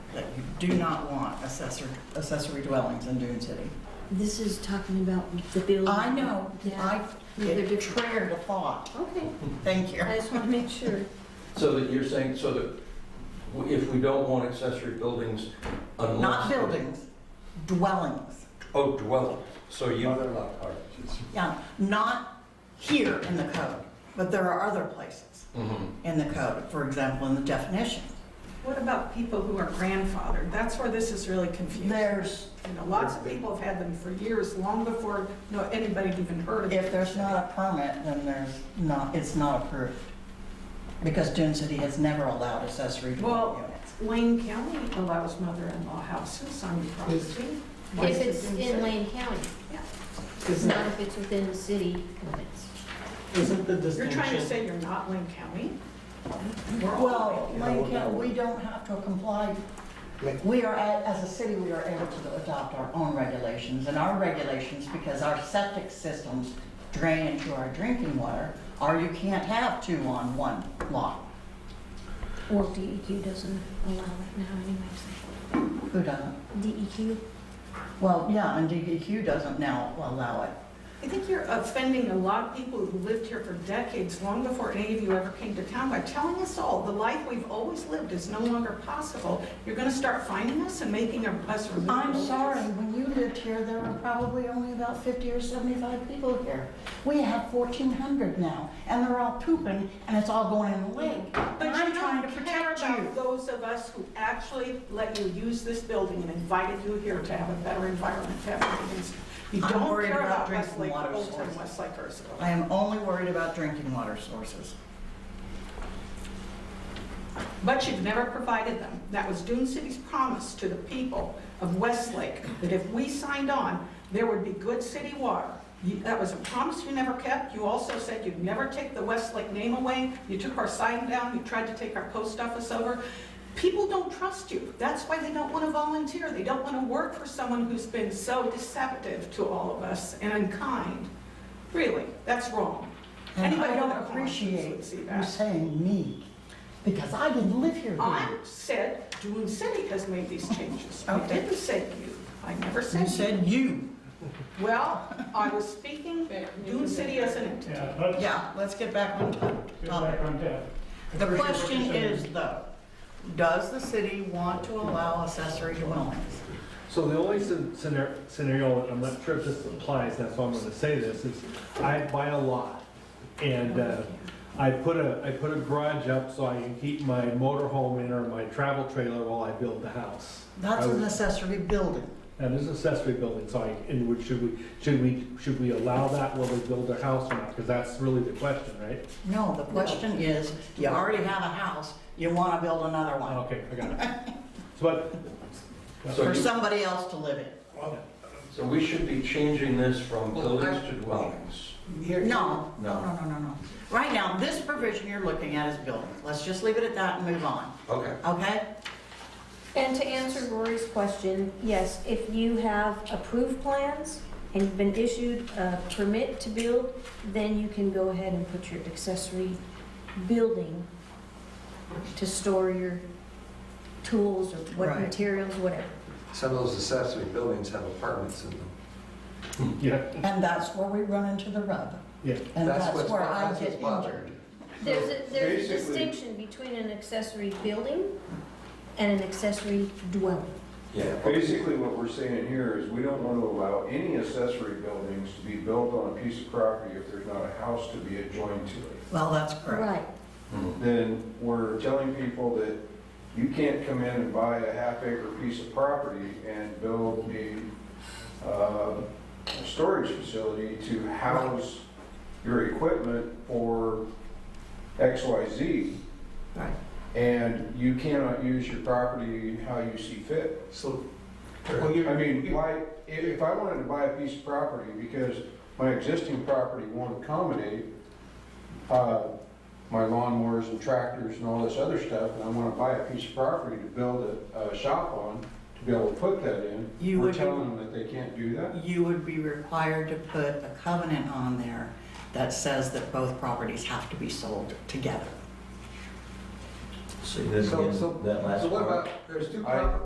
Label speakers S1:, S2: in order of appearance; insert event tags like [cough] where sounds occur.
S1: do not want accessory, accessory dwellings in Dune City.
S2: This is talking about the building.
S1: I know, I,
S2: Yeah. Yeah, they're
S1: it
S2: different.
S1: trailed a thought,
S2: Okay,
S1: thank you.
S2: I just want to make sure.
S3: So that you're saying, so that w- if we don't want accessory buildings unless.
S1: Not buildings, dwellings.
S3: Oh, dwelling, so you,
S4: Mother cottages.
S1: Yeah, not here in the code, but there are other places
S3: Mhm.
S1: in the code, for example, in the definition.
S5: What about people who are grandfathered? That's where this is really confusing.
S1: There's,
S5: You know, lots of people have had them for years, long before, no, anybody even heard of it.
S1: if there's not a permit, then there's not, it's not approved. Because Dune City has never allowed accessory dwelling
S5: Well-
S1: units.
S5: Wayne County allows mother-in-law houses on property. Why
S6: If
S5: is
S6: it's
S5: it
S6: in
S5: safe?
S6: Lane County,
S4: Isn't
S6: not if it's within the city limits.
S4: isn't the
S5: You're trying to
S4: distinction,
S5: say you're not Wayne County? We're all
S1: Well,
S5: Wayne County.
S1: Lane County, we don't have to comply. We are, at- as a city, we are able to adopt our own regulations, and our regulations, because our septic systems drain into our drinking water, are you can't have two on one lot.
S6: Well, DEQ doesn't allow that now anyways.
S1: Who doesn't?
S6: DEQ?
S1: Well, yeah, and DEQ doesn't now allow it.
S5: I think you're offending a lot of people who lived here for decades, long before any of you ever came to town, by telling us all the life we've always lived is no longer possible. You're going to start finding us and making us. remove
S1: I'm
S5: all
S1: sorry,
S5: this.
S1: when you lived here, there were probably only about 50 or 75 people here. We have 1,400 now, and they're all pooping, and it's all going in the lake.
S5: But you don't care about those of us who actually let you use this building and invited you here to have a better environment, to have meetings. You
S1: I'm
S5: don't
S1: worried
S5: care
S1: about
S5: about
S1: drinking
S5: Westlake,
S1: water
S5: Oldtown,
S1: sources.
S5: Westlake, Ursula.
S1: I am only worried about drinking water [laughs] sources.
S5: But you've never provided them. That was Dune City's promise to the people of Westlake, that if we signed on, there would be good city water. You- That was a promise you never kept. You also said you'd never take the Westlake name away. You took our sign down, you tried to take our post office over. People don't trust you. That's why they don't want to volunteer. They don't want to work for someone who's been so deceptive to all of us and unkind. Really, that's wrong.
S1: And
S5: Anybody
S1: I don't
S5: with a conscience
S1: appreciate
S5: would see
S1: you
S5: that.
S1: saying me, because I didn't live here.
S5: I said Dune City has made these changes. I
S1: Okay.
S5: didn't say you. I never
S1: then. You said
S5: said you.
S1: you.
S5: Well, I was speaking Dune City as an entity.
S7: Yeah, let's
S1: Yeah, let's get back on top-
S7: get
S1: topic.
S7: back on that.
S1: The question is though, does the city want to allow accessory dwellings?
S8: So the only scen- scenar- scenario, I'm not sure if this applies, that's why I'm gonna say this, is I buy a lot and uh, I put a, I put a garage up so I can keep my motorhome in or my travel trailer while I build the house.
S1: That's
S8: I would-
S3: Oh.
S1: an accessory building.
S8: That is accessory building, so I, and would, should we, should we, should we allow that while they build their house or not? Because that's really the question, right?
S1: No, the question is, you already have a house, you want to build another one
S8: Okay, I got it. So, but
S3: Oh. so
S1: for
S3: you,
S1: somebody else to live in.
S3: so we should be changing this from
S4: Well, I-
S3: buildings to dwellings.
S4: Here-
S1: No, no,
S3: No.
S1: no, no, no, no. Right now, this provision you're looking at is buildings. Let's just leave it at that and move on,
S3: Okay,
S1: okay?
S6: And to answer Rory's question, yes, if you have approved plans and been issued a permit to build, then you can go ahead and put your accessory building to store your tools or what
S1: Right.
S6: materials, whatever.
S4: Some of those accessory buildings have apartments in them.
S8: yeah,
S1: And that's where we run into the rub.
S8: yeah.
S1: And that's
S4: what's-
S1: where I
S4: that's
S1: get
S4: what's bothering
S1: injured.
S4: me.
S6: There's a, there's a
S4: Basically-
S6: distinction between an accessory building and an accessory dwelling.
S3: yeah.
S9: Basically, what we're saying here is we don't want to allow any accessory buildings to be built on a piece of property if there's not a house to be adjoined to it.
S1: Well, that's correct.
S6: Right.
S3: Mhm.
S9: Then we're telling people that you can't come in and buy a half acre piece of property and build a, uh, a storage facility to house your equipment for X, Y, Z.
S1: Right.
S9: And you cannot use your property how you see fit.
S4: So, well, you're.
S9: I mean,
S4: you're-
S9: why, if, if I wanted to buy a piece of property because my existing property won't accommodate, uh, my lawnmowers and tractors and all this other stuff, and I wanna buy a piece of property to build a, a shop on, to be able to put that in,
S1: You
S9: we're
S1: would be-
S9: telling them that they can't do that?
S1: you would be required to put a covenant on there that says that both properties have to be sold together.
S4: So, so, so what about, there's two
S9: I-
S4: properties.